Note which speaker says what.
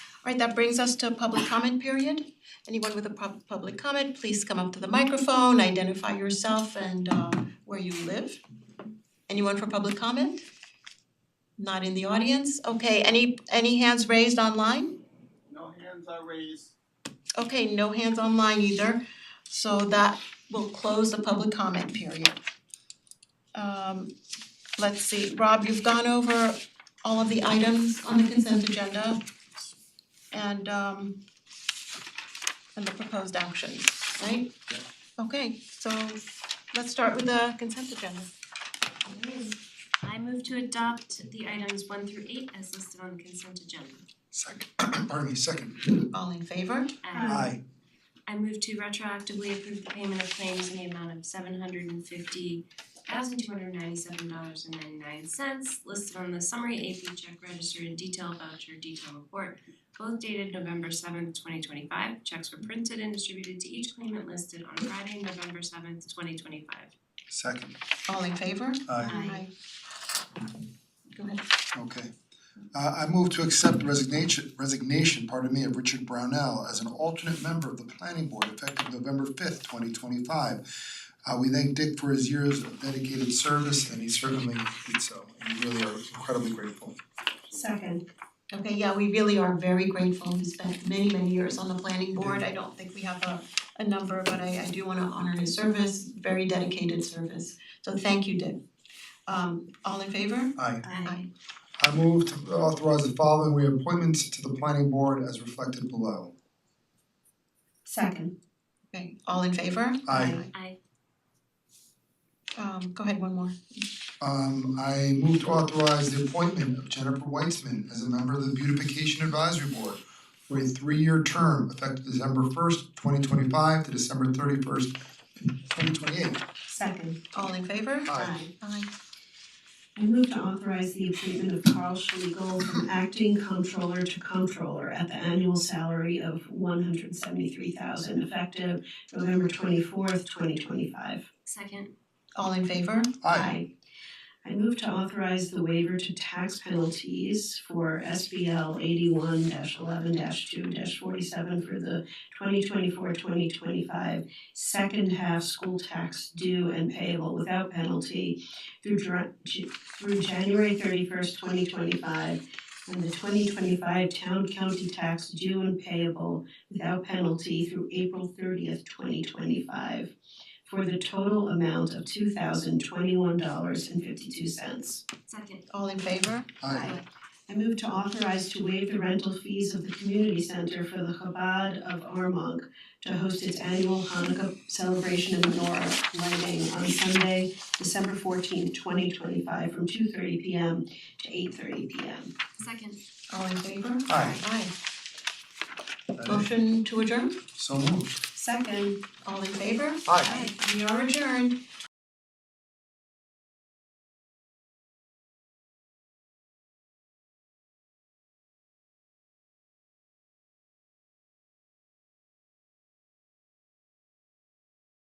Speaker 1: Alright, that brings us to public comment period. Anyone with a pub- public comment, please come up to the microphone, identify yourself and uh where you live. Anyone for public comment? Not in the audience, okay, any any hands raised online?
Speaker 2: No hands are raised.
Speaker 1: Okay, no hands online either, so that will close the public comment period. Um let's see, Rob, you've gone over all of the items on the consent agenda and um and the proposed actions, right? Okay, so let's start with the consent agenda.
Speaker 3: I move to adopt the items one through eight as listed on the consent agenda.
Speaker 4: Second, pardon me, second.
Speaker 1: All in favor?
Speaker 3: And
Speaker 4: Aye.
Speaker 3: I move to retroactively approve the payment of claims in the amount of seven hundred and fifty thousand two hundred ninety-seven dollars and ninety-nine cents listed on the summary AP check register and detail voucher detail report, both dated November seventh, twenty twenty-five. Checks were printed and distributed to each claimant listed on Friday, November seventh, twenty twenty-five.
Speaker 4: Second,
Speaker 1: All in favor?
Speaker 3: Aye.
Speaker 4: aye,
Speaker 1: Go ahead.
Speaker 4: okay. Uh I move to accept resignation resignation, pardon me, of Richard Brownell as an alternate member of the planning board effective November fifth, twenty twenty five. Uh we thank Dick for his years of dedicated service and he certainly did so, and we really are incredibly grateful.
Speaker 3: Second.
Speaker 1: Okay, yeah, we really are very grateful. He spent many, many years on the planning board. I don't think we have a a number, but I I do wanna honor his service, very dedicated service. So thank you, Dick. Um all in favor?
Speaker 4: Aye.
Speaker 1: Aye.
Speaker 4: I move to authorize the following reappointments to the planning board as reflected below.
Speaker 3: Second.
Speaker 1: Okay, all in favor?
Speaker 4: Aye.
Speaker 3: Aye.
Speaker 1: Um go ahead, one more.
Speaker 4: Um I move to authorize the appointment of Jennifer Weitzman as a member of the Beautification Advisory Board for a three-year term effective December first, twenty twenty-five to December thirty-first, twenty twenty-eight.
Speaker 5: Second,
Speaker 1: All in favor?
Speaker 4: Aye.
Speaker 1: Aye.
Speaker 5: I move to authorize the appointment of Carl Schlegel from acting comptroller to comptroller at the annual salary of one hundred seventy-three thousand effective November twenty-fourth, twenty twenty-five.
Speaker 3: Second.
Speaker 1: All in favor?
Speaker 4: Aye.
Speaker 5: I move to authorize the waiver to tax penalties for SBL eighty-one eleven two forty-seven for the 2024-2025 second half school tax due and payable without penalty through Jan- J- through January thirty-first, twenty twenty-five, and the twenty twenty-five town county tax due and payable without penalty through April thirtieth, twenty twenty-five for the total amount of two thousand twenty-one dollars and fifty-two cents.
Speaker 3: Second.
Speaker 1: All in favor?
Speaker 4: Aye.
Speaker 5: I move to authorize to waive the rental fees of the community center for the Chabad of Armonk to host its annual Hanukkah celebration and menorah lighting on Sunday, December fourteenth, twenty twenty-five, from two thirty P M to eight thirty P M.
Speaker 3: Second.
Speaker 1: All in favor?
Speaker 4: Aye.
Speaker 1: Aye.
Speaker 4: That is
Speaker 1: Motion to adjourn?
Speaker 4: So moved.
Speaker 5: Second.
Speaker 1: All in favor?
Speaker 4: Aye.
Speaker 1: We are adjourned.